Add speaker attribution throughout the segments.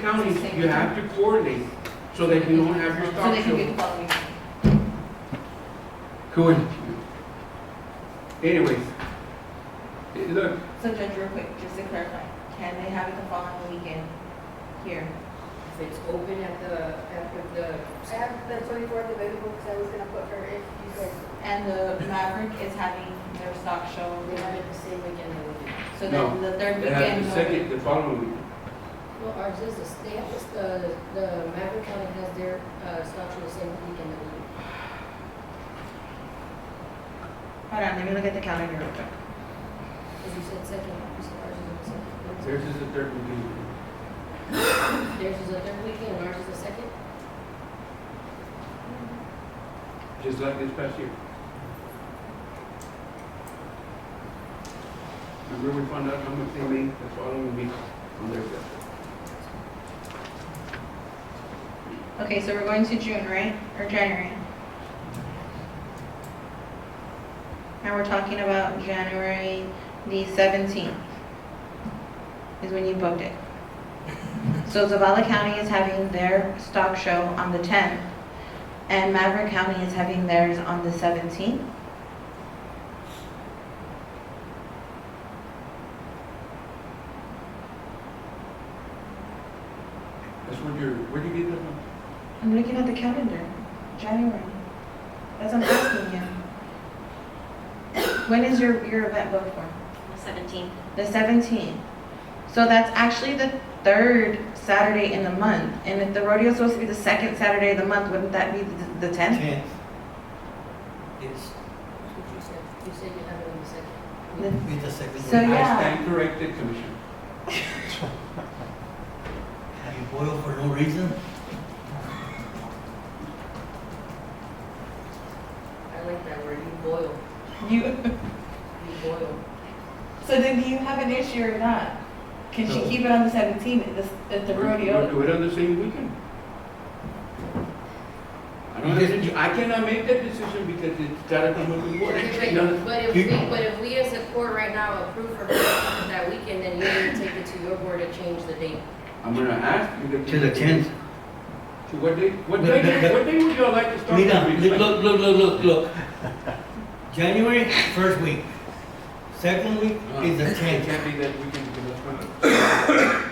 Speaker 1: county, you have to coordinate so that you don't have your
Speaker 2: So they
Speaker 1: stock
Speaker 2: can
Speaker 1: show.
Speaker 2: get quality.
Speaker 1: Cool. Anyways, eh, look,
Speaker 2: So Judge, real quick, just to clarify, can they have it the following weekend here?
Speaker 3: If it's open at the, at the,
Speaker 4: I have the twenty-fourth available because I was gonna put her if you guys.
Speaker 2: And the Maverick is having their stock show,
Speaker 3: they have it the same weekend they would do.
Speaker 2: so
Speaker 1: No,
Speaker 2: then the third
Speaker 1: they have
Speaker 2: weekend.
Speaker 1: the
Speaker 2: will-
Speaker 1: second, the following week.
Speaker 3: Well, ours is, the- they have this, the, the Maverick County has their, uh, stock show the same weekend that we do.
Speaker 2: Hold on, let me look at the calendar real quick.
Speaker 3: Because you said second, you said ours is the second.
Speaker 1: Theirs is the third week.
Speaker 3: Theirs is the third weekend, and ours is the second.
Speaker 1: just like this past year. Remember we found out how much they made the following week on their bill?
Speaker 2: Okay, so we're going to June, right, or January? And we're talking about January the seventeenth is when you booked it. So Zavala County is having their stock show on the tenth, and Maverick County is having theirs on the seventeenth.
Speaker 1: That's what you're, where do you get that from?
Speaker 2: I'm looking at the calendar, January. That's what I'm asking you. When is your, your event booked for?
Speaker 5: Seventeen.
Speaker 2: The 17th. So that's actually the third Saturday in the month. And if the rodeo's supposed to be the second Saturday of the month, wouldn't that be the- the 10th?
Speaker 6: Tenth. Yes,
Speaker 3: That's what you said. You said you have it on the second.
Speaker 2: The-
Speaker 6: with the second.
Speaker 2: So-
Speaker 6: one.
Speaker 1: I
Speaker 2: yeah.
Speaker 1: stand corrected, Commissioner.
Speaker 6: Have you boiled for no reason?
Speaker 3: I like that word, you boil,
Speaker 2: You,
Speaker 3: you boil.
Speaker 2: so then do you have an issue or not? Can she
Speaker 1: No.
Speaker 2: keep it on the 17th at the, at the
Speaker 1: We're-
Speaker 2: rodeo?
Speaker 1: We'll do it on the same weekend. I don't have to, I cannot make that decision because it's gotta come with the board. No,
Speaker 3: But if we, but if we as a court right now approve her that weekend, then you're gonna take it to your board to change the date.
Speaker 1: I'm gonna ask you to.
Speaker 6: To the tenth.
Speaker 1: To what day, what
Speaker 6: But-
Speaker 1: day,
Speaker 6: but-
Speaker 1: what day would y'all like to start?
Speaker 6: Mira,
Speaker 1: the
Speaker 6: look,
Speaker 1: meeting?
Speaker 6: look, look, look, look, look. January, first week. Second week
Speaker 1: Uh,
Speaker 6: is the
Speaker 1: It
Speaker 6: tenth.
Speaker 1: can't be that weekend because that's when.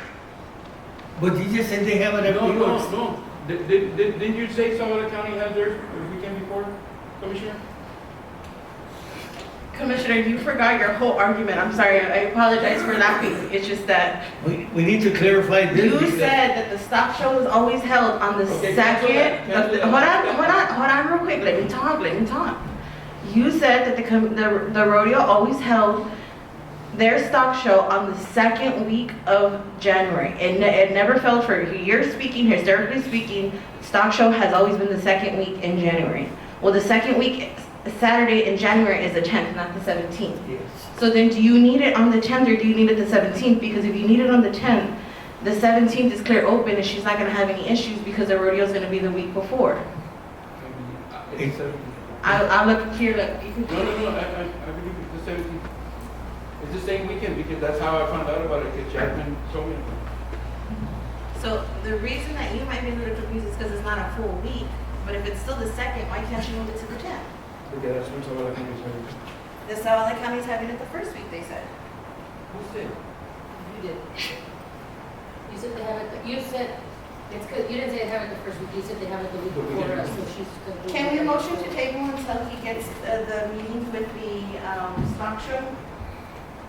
Speaker 6: But you just said they have it
Speaker 1: No,
Speaker 6: every
Speaker 1: no,
Speaker 6: year.
Speaker 1: no. Did, did, did- didn't you say Salvador County had their weekend before, Commissioner?
Speaker 2: Commissioner, you forgot your whole argument. I'm sorry. I apologize for laughing. It's just that
Speaker 6: We, we need to clarify this.
Speaker 2: you
Speaker 6: because-
Speaker 2: said that the stock show is always held on the
Speaker 1: Okay, cancel that,
Speaker 2: second.
Speaker 1: cancel
Speaker 2: the-
Speaker 1: that.
Speaker 2: Hold on, hold on, hold on real quick. Let me talk, let me talk. You said that the, com- the the rodeo always held their stock show on the second week of January. It, ne- it never fell for you. You're speaking, historically speaking, stock show has always been the second week in January. Well, the second week, Saturday in January is the 10th, not the 17th.
Speaker 6: Yes.
Speaker 2: So then do you need it on the 10th or do you need it the 17th? Because if you need it on the 10th, the 17th is clear open and she's not gonna have any issues because the rodeo's gonna be the week before.
Speaker 1: uh, It's seven.
Speaker 2: I, I look here, look, you
Speaker 1: No,
Speaker 2: can,
Speaker 1: no, no, I, I, I believe it's the seventeenth. It's the same weekend because that's how I found out about it, because Chapman told me. about
Speaker 2: so the reason that you might be a little confused is because it's not a full week, but if it's still the second, why can't you move it to the 10th?
Speaker 1: it. Okay, that's when someone like me was like,
Speaker 2: The Savala County's having it the first week, they said.
Speaker 1: who said?
Speaker 3: You did. You said they have it, you said, it's good, you didn't say they have it the first week, you said they have it the week
Speaker 1: The
Speaker 3: before
Speaker 1: weekend.
Speaker 3: us, so she's. gonna do
Speaker 2: Can we
Speaker 3: it.
Speaker 2: motion to table until he gets uh, the meeting with the um, stock show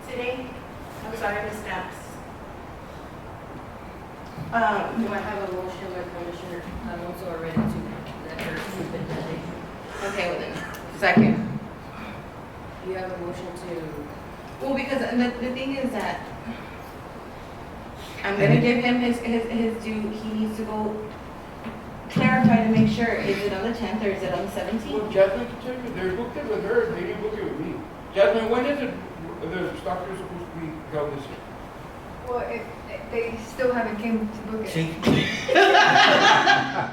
Speaker 2: today? I'm sorry, Ms. Knapp's. Um,
Speaker 3: Do I have a motion by Commissioner Alonso already to that her stupid date?
Speaker 2: Okay, well then, second.
Speaker 3: You have a motion to,
Speaker 2: Well, because the, the thing is that I'm gonna give him his, his, his due, he needs to go clarify to make sure, is it on the tenth or is it on the seventeenth?
Speaker 1: Well, Jasmine can tell you, they booked it with her, they didn't book it with me. Jasmine, when is it, the stock is supposed to be held this year?
Speaker 4: Well, if, if they still haven't came to book it.
Speaker 6: See,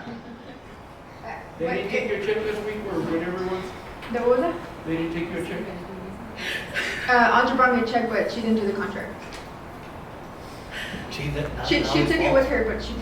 Speaker 4: Uh,
Speaker 1: They
Speaker 4: but
Speaker 1: didn't take your check this week or whenever it was,
Speaker 4: it- The, what was it?
Speaker 1: they didn't take your check?
Speaker 4: Uh, Audra brought me a check, but she didn't do the contract.
Speaker 6: see that.
Speaker 4: She, she took it with her, but she